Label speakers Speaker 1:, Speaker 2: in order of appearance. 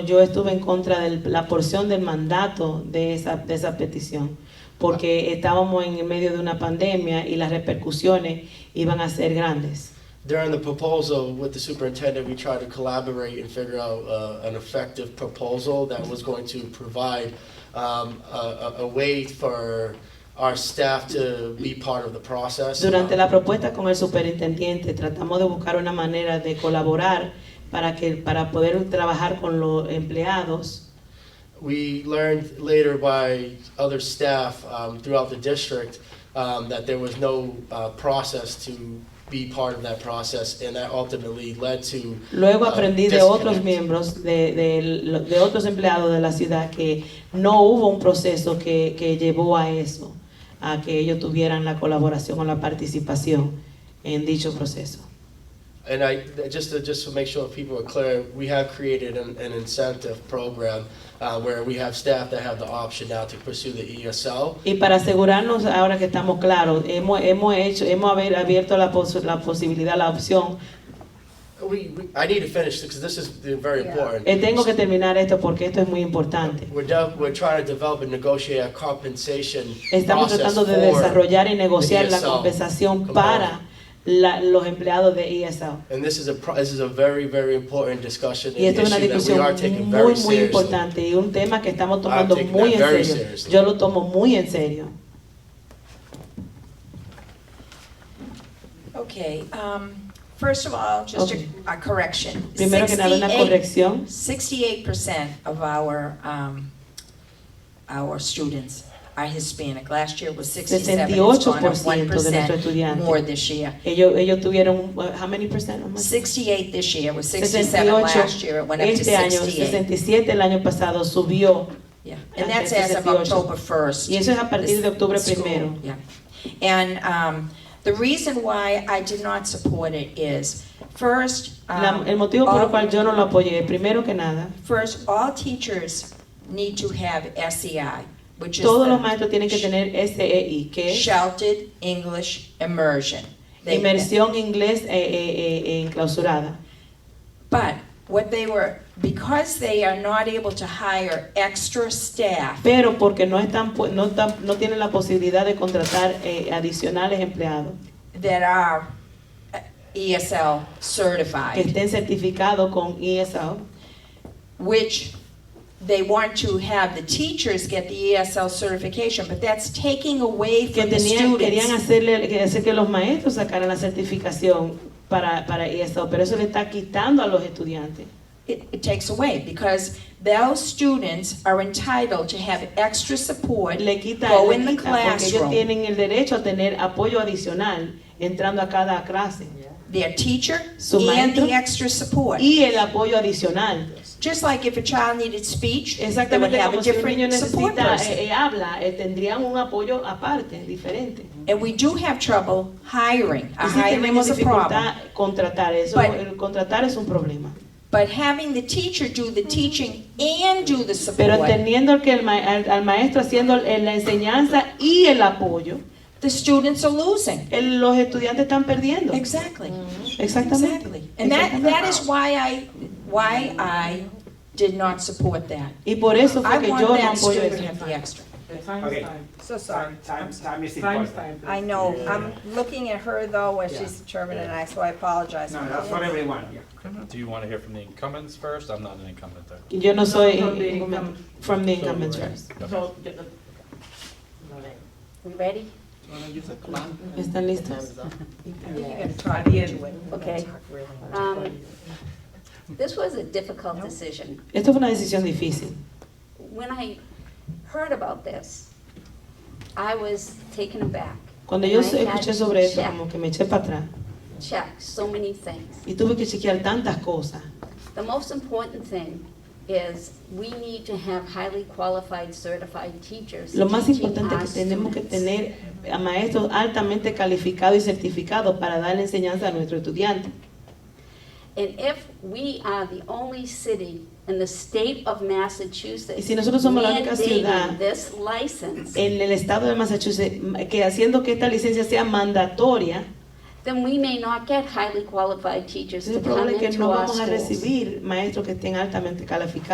Speaker 1: Yo estuve en contra de la porción del mandato de esa, de esa petición, porque estábamos en medio de una pandemia y las repercusiones iban a ser grandes.
Speaker 2: During the proposal with the superintendent, we tried to collaborate and figure out uh, an effective proposal that was going to provide um, a, a, a way for our staff to be part of the process.
Speaker 1: Durante la propuesta con el superintendente tratamos de buscar una manera de colaborar para, que, para poder trabajar con los empleados.
Speaker 2: We learned later by other staff um, throughout the district um, that there was no uh, process to be part of that process, and that ultimately led to
Speaker 1: Luego
Speaker 2: uh,
Speaker 1: aprendí de otros
Speaker 2: disconnect.
Speaker 1: miembros, de, de- de otros empleados de la ciudad, que no hubo un proceso que, que llevó a eso, a que ellos tuvieran la colaboración o la participación en dicho proceso.
Speaker 2: And I, th- just to, just to make sure people are clear, we have created an, an incentive program uh, where we have staff that have the option now to pursue the E ESL.
Speaker 1: Y para asegurarnos, ahora que estamos claros, hemos, hemos, hecho, hemos haber abierto la, pos- la posibilidad, la opción.
Speaker 2: We, we, I need to finish because this is the- very
Speaker 3: Yeah.
Speaker 2: important.
Speaker 1: Eh, tengo que terminar esto porque esto es muy importante.
Speaker 2: We're, de- we're trying to develop and negotiate a compensation
Speaker 1: Estamos
Speaker 2: process
Speaker 1: tratando de
Speaker 2: for-
Speaker 1: desarrollar y negociar la
Speaker 2: ESL
Speaker 1: compensación
Speaker 2: component.
Speaker 1: para la- los empleados de E ESL.
Speaker 2: And this is a pro- this is a very very important discussion
Speaker 1: Y
Speaker 2: and
Speaker 1: esto es una
Speaker 2: issue that we
Speaker 1: discusión
Speaker 2: are taking
Speaker 1: muy,
Speaker 2: very
Speaker 1: muy
Speaker 2: seriously.
Speaker 1: importante y un tema que estamos tomando
Speaker 2: taking
Speaker 1: muy en
Speaker 2: that very
Speaker 1: serio.
Speaker 2: seriously.
Speaker 1: Yo lo tomo muy en serio.
Speaker 3: Okay, um, first of all, just
Speaker 1: Okay.
Speaker 3: a a correction.
Speaker 1: Primero que nada, una corrección.
Speaker 3: Sixty-eight percent of our, um, our students are Hispanic. Last year was sixty-seven, it's gone up
Speaker 1: 68% de
Speaker 3: one
Speaker 1: nuestros
Speaker 3: percent
Speaker 1: estudiantes.
Speaker 3: more this year.
Speaker 1: Ellos, ellos tuvieron, un- how many percent? How much?
Speaker 3: Sixty-eight this year, was sixty-seven
Speaker 1: 68
Speaker 3: last year, it went up to
Speaker 1: este año,
Speaker 3: sixty-eight.
Speaker 1: 67 el año pasado subió
Speaker 3: Yeah, and that's as of
Speaker 1: 68.
Speaker 3: October first.
Speaker 1: y eso es a partir de octubre
Speaker 3: School,
Speaker 1: primero.
Speaker 3: Yeah, and, um, the reason why I did not support it is, first,
Speaker 1: La-
Speaker 3: um.
Speaker 1: el motivo por el
Speaker 3: all-
Speaker 1: cual yo no lo apoyé, primero que nada,
Speaker 3: First, all teachers need to have SEI, which is
Speaker 1: todos los
Speaker 3: the
Speaker 1: maestros tienen que tener SEI, que es
Speaker 3: Sheltered English Immersion. They-
Speaker 1: inmersión inglés eh, eh, eh, enclausurada.
Speaker 3: But what they were, because they are not able to hire extra staff,
Speaker 1: pero porque no están pu- no están- no tienen la posibilidad de contratar eh, adicionales empleados
Speaker 3: that are uh, ESL
Speaker 1: que
Speaker 3: certified,
Speaker 1: estén certificados con E ESL
Speaker 3: which they want to have the teachers get the ESL certification, but that's taking away
Speaker 1: que
Speaker 3: from the
Speaker 1: tenían querían
Speaker 3: students.
Speaker 1: hacerle que hacer que los maestros sacaran la certificación para para ESL pero eso le está quitando a los estudiantes
Speaker 3: it, it takes away because those students are entitled to have extra support.
Speaker 1: le quita,
Speaker 3: Go
Speaker 1: le
Speaker 3: in the
Speaker 1: quita, porque ellos
Speaker 3: classroom.
Speaker 1: tienen el derecho a tener apoyo adicional entrando a cada clase
Speaker 3: Their teacher
Speaker 1: Su
Speaker 3: and
Speaker 1: maestro.
Speaker 3: the extra support.
Speaker 1: y el apoyo adicional
Speaker 3: Just like if a child needed speech, they would
Speaker 1: exactamente
Speaker 3: have
Speaker 1: como
Speaker 3: a
Speaker 1: si un niño
Speaker 3: different support
Speaker 1: necesita
Speaker 3: person.
Speaker 1: eh, eh, habla eh, tendrían un apoyo aparte diferente
Speaker 3: And we do have trouble hiring.
Speaker 1: eh. Y
Speaker 3: Uh,
Speaker 1: sí
Speaker 3: Hiring
Speaker 1: tenemos
Speaker 3: is a problem.
Speaker 1: dificultad contratar eso,
Speaker 3: But-
Speaker 1: el contratar es un problema.
Speaker 3: But having the teacher do the teaching and do the
Speaker 1: Pero
Speaker 3: support,
Speaker 1: teniendo que el ma- al, al maestro haciendo el- la enseñanza y el apoyo,
Speaker 3: the students are losing.
Speaker 1: el- los estudiantes están perdiendo.
Speaker 3: Exactly.
Speaker 1: Exactamente.
Speaker 3: Exactly. And that,
Speaker 1: Exactamente.
Speaker 3: that is why I, why I did not support that.
Speaker 1: y por eso
Speaker 3: I
Speaker 1: fue que
Speaker 3: want
Speaker 1: yo no
Speaker 3: that
Speaker 1: apoyo
Speaker 3: student to
Speaker 1: eso.
Speaker 3: have the extra.
Speaker 4: Time
Speaker 5: Okay.
Speaker 4: is time.
Speaker 6: So sorry.
Speaker 5: Time, time, time is
Speaker 4: Time is
Speaker 5: important.
Speaker 4: time.
Speaker 6: I know, I'm looking at her though, as she's the chairman and I, so I apologize.
Speaker 5: No, that's for everyone, yeah.
Speaker 7: Do you want to hear from the incumbents first? I'm not an incumbent there.
Speaker 1: Yo no soy
Speaker 4: From the
Speaker 1: incumbent- from the incumbents first.
Speaker 4: So, get the-
Speaker 6: We ready?
Speaker 4: wanna use a clock?
Speaker 1: ¿Están listos?
Speaker 6: I think you're gonna talk into it.
Speaker 8: Okay. Um, This was a difficult decision.
Speaker 1: Esto fue una decisión difícil.
Speaker 8: When I heard about this, I was taken aback.
Speaker 1: Cuando yo
Speaker 8: And I had
Speaker 1: escuché sobre esto,
Speaker 8: check-
Speaker 1: como que me eché para atrás
Speaker 8: Check so many things.
Speaker 1: y tuve que chequear tantas cosas.
Speaker 8: The most important thing is we need to have highly qualified, certified teachers.
Speaker 1: Lo más
Speaker 8: teaching
Speaker 1: importante
Speaker 8: our
Speaker 1: es que tenemos que
Speaker 8: students.
Speaker 1: tener a maestros altamente calificados y certificados para dar la enseñanza a nuestros estudiantes.
Speaker 8: And if we are the only city in the state of Massachusetts.
Speaker 1: Y si nosotros somos la única ciudad-
Speaker 8: mandating This license,
Speaker 1: En el estado de Massachusetts, que haciendo que esta licencia sea mandatoria,
Speaker 8: then we may not get highly qualified teachers
Speaker 1: entonces
Speaker 8: to
Speaker 1: es
Speaker 8: come
Speaker 1: probable que
Speaker 8: into
Speaker 1: no
Speaker 8: our
Speaker 1: vamos a
Speaker 8: schools.
Speaker 1: recibir maestros que estén altamente calificados.